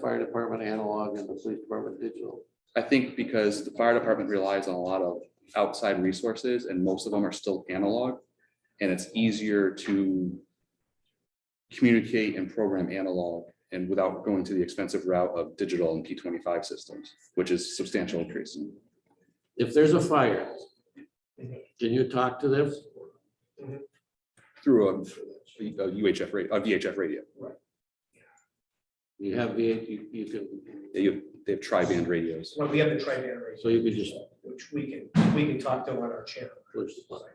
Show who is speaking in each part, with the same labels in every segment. Speaker 1: fire department analog and the police department digital?
Speaker 2: I think because the fire department relies on a lot of outside resources and most of them are still analog. And it's easier to communicate and program analog and without going to the expensive route of digital and P twenty-five systems, which is substantial increase.
Speaker 1: If there's a fire, can you talk to them?
Speaker 2: Through a a UHF, ra- a VHF radio.
Speaker 1: You have the, you, you can,
Speaker 2: They have, they have tri-band radios.
Speaker 3: Well, we have the tri-band race,
Speaker 1: so you could just
Speaker 3: which we can, we can talk to on our channel.
Speaker 1: push the button.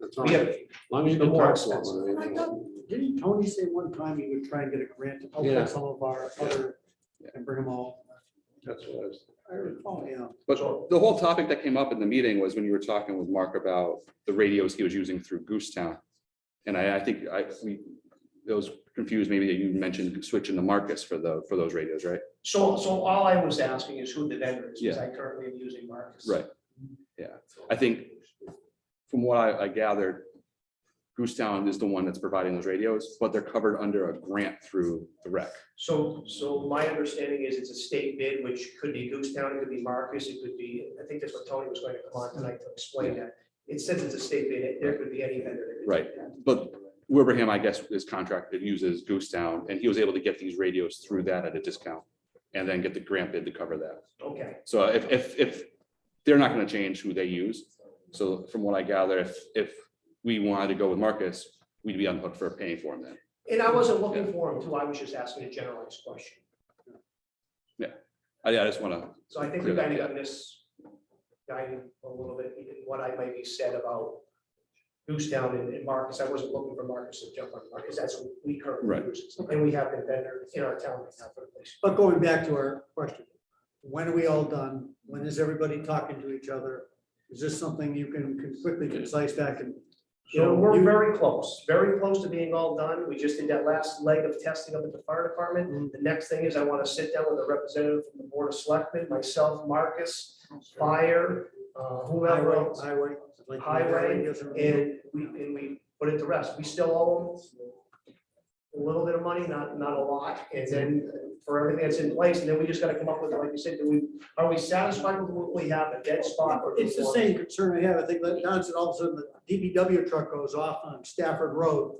Speaker 1: That's all.
Speaker 3: We have,
Speaker 1: As long as you
Speaker 3: the
Speaker 1: can
Speaker 3: more
Speaker 1: talk to them. I
Speaker 4: I
Speaker 1: mean,
Speaker 4: thought- Didn't Tony say one time he would try and get a grant to
Speaker 1: Yeah.
Speaker 4: outfit some of our other
Speaker 2: Yeah.
Speaker 4: and bring them all?
Speaker 1: That's what I was.
Speaker 4: I recall, yeah.
Speaker 2: But the whole topic that came up in the meeting was when you were talking with Mark about the radios he was using through Goose Town. And I, I think I, we, those confused, maybe that you mentioned switching to Marcus for the, for those radios, right?
Speaker 3: so, so all I was asking is who the vendor is, because I currently am using Marcus.
Speaker 2: Right. Yeah, I think from what I, I gathered, Goose Town is the one that's providing those radios, but they're covered under a grant through the rec.
Speaker 3: So, so my understanding is it's a state bid, which could be Goose Town, it could be Marcus, it could be, I think that's what Tony was going to come on tonight to explain that. It says it's a state bid, there could be any vendor. that could do
Speaker 2: Right.
Speaker 3: that.
Speaker 2: But Wilbraham, I guess, is contracted, uses Goose Town, and he was able to get these radios through that at a discount. And then get the grant bid to cover that.
Speaker 3: Okay,
Speaker 2: So if, if, if, they're not gonna change who they use. So from what I gather, if, if we wanted to go with Marcus, we'd be unhooked for paying for him then.
Speaker 3: and I wasn't looking for him too, I was just asking a generalized question.
Speaker 2: I, I just wanna,
Speaker 3: So I think we kind of got this guided a little bit, in what I might be said about Goose Town and and Marcus, I wasn't looking for Marcus to jump on Marcus, that's what we
Speaker 2: Right.
Speaker 3: currently use. And we have a vendor in our town right now for the place.
Speaker 4: But going back to our question, when are we all done? When is everybody talking to each other? Is this something you can can quickly concise back and?
Speaker 3: So we're very close, very close to being all done. We just did that last leg of testing up at the fire
Speaker 4: Mm-hmm.
Speaker 3: department. The next thing is I want to sit down with a representative from the Board of Selectmen, myself, Marcus, fire, uh, whoever
Speaker 4: Highway,
Speaker 3: else.
Speaker 4: highway. like-
Speaker 3: Highway And we, and we put it to rest. We still owe them a little bit of money, not, not a lot, and then for everything that's in place, and then we just gotta come up with, like you said, do we, are we satisfied with what we have, a dead spot? or do we
Speaker 4: It's the
Speaker 3: want-
Speaker 4: same concern I have. I think that Don said all of a sudden the DBW truck goes off on Stafford Road.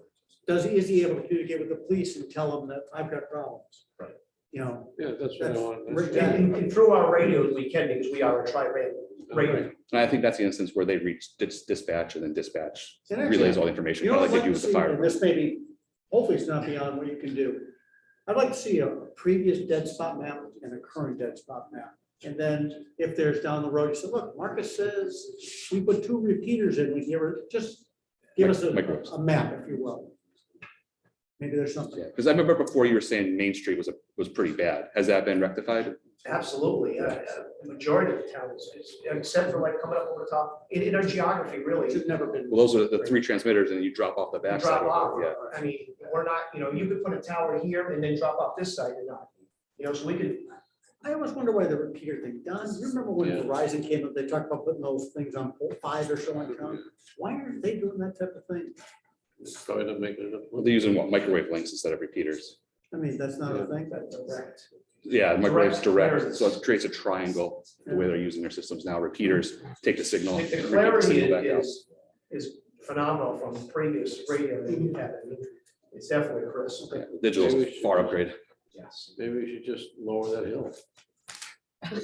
Speaker 4: Does, is he able to communicate with the police and tell them that I've got problems?
Speaker 2: Right.
Speaker 4: You know,
Speaker 1: Yeah, that's what I
Speaker 4: That's-
Speaker 1: wanted.
Speaker 4: Rick,
Speaker 1: to
Speaker 4: yeah.
Speaker 1: say.
Speaker 3: And, and through our radios, we can, because we are a tri-rate radio.
Speaker 1: Right.
Speaker 2: and I think that's the instance where they reach dis- dispatch and then dispatch
Speaker 4: And actually,
Speaker 2: relays all the information,
Speaker 4: you know,
Speaker 2: kinda
Speaker 4: I'd
Speaker 2: like they do
Speaker 4: like
Speaker 2: with
Speaker 4: to
Speaker 2: the
Speaker 4: see,
Speaker 2: fire.
Speaker 4: and
Speaker 2: department.
Speaker 4: this maybe, hopefully it's not beyond what you can do. I'd like to see a previous dead spot map and a current dead spot map. And then if there's down the road, you say, look, Marcus says, we put two repeaters in, we give her, just give us a,
Speaker 2: Microwaves.
Speaker 4: a map, if you will. Maybe there's something.
Speaker 2: Yeah, Cause I remember before you were saying Main Street was, a was pretty bad. Has that been rectified?
Speaker 3: Absolutely, yeah, yeah. the majority of the towns, it's- except for like coming up over the top, in, in our geography, really.
Speaker 4: It should never been.
Speaker 2: Well, those are the three transmitters and you drop off the
Speaker 3: and
Speaker 2: backside.
Speaker 3: drop
Speaker 2: of
Speaker 3: off.
Speaker 2: it, Yeah,
Speaker 3: I mean, we're not, you know, you could put a tower here and then drop off this side and not, you know, so we could,
Speaker 4: I always wonder why the repeater thing, Don, you remember when
Speaker 1: Yeah.
Speaker 4: Verizon came up, they talked about putting those things on pole five or so in town? Why aren't they doing that type of thing?
Speaker 1: It's Probably not making it up.
Speaker 2: Well, they're using what, microwave links instead of repeaters.
Speaker 4: I mean, that's not a thing.
Speaker 3: that's correct.
Speaker 2: Yeah, microwaves
Speaker 3: Direct.
Speaker 2: direct, so it creates a triangle, the way they're using their systems now, repeaters take the signal. Oh,
Speaker 3: The
Speaker 2: and
Speaker 3: the
Speaker 2: repeat the
Speaker 3: clarity
Speaker 2: signal back out.
Speaker 3: is, is phenomenal from previous radio that you had. I mean, It's definitely a crisp.
Speaker 2: Yeah, Digital's a far upgrade.
Speaker 3: Yes.
Speaker 1: Maybe we should just lower that hill.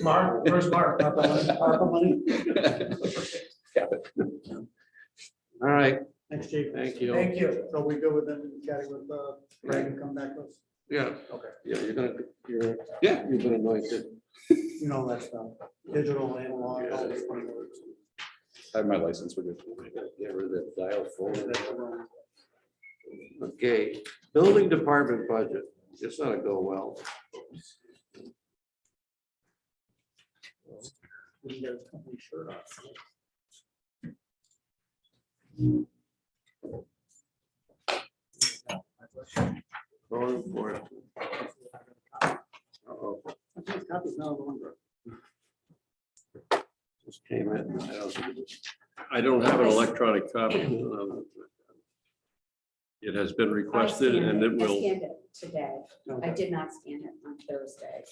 Speaker 3: Mark, where's Mark?
Speaker 4: ARPA money- ARPA money.
Speaker 1: All right,
Speaker 4: Thanks, Chief.
Speaker 1: thank you.
Speaker 3: Thank you.
Speaker 4: So we go with them, chatting with, uh, Greg and come back with,
Speaker 1: Yeah.
Speaker 3: Okay.
Speaker 1: Yeah, you're gonna, you're.
Speaker 2: Yeah.
Speaker 1: You've been anointed.
Speaker 4: you know, that stuff, digital, analog, all those frameworks.
Speaker 2: I have my license, we're good.
Speaker 1: Get rid of that dial phone.
Speaker 4: That's wrong.
Speaker 1: Okay, building department budget, it's not gonna go well.
Speaker 4: We got a company shirt on.
Speaker 1: Going for it. Uh-oh,
Speaker 4: I think copies now, the one.
Speaker 1: Just came in. Um, I don't- I don't have an electronic copy.
Speaker 5: It has been
Speaker 6: I
Speaker 5: requested and
Speaker 6: scanned
Speaker 5: it
Speaker 6: I
Speaker 5: will.
Speaker 6: scanned it today. I
Speaker 4: Okay.
Speaker 6: did not scan it on Thursday.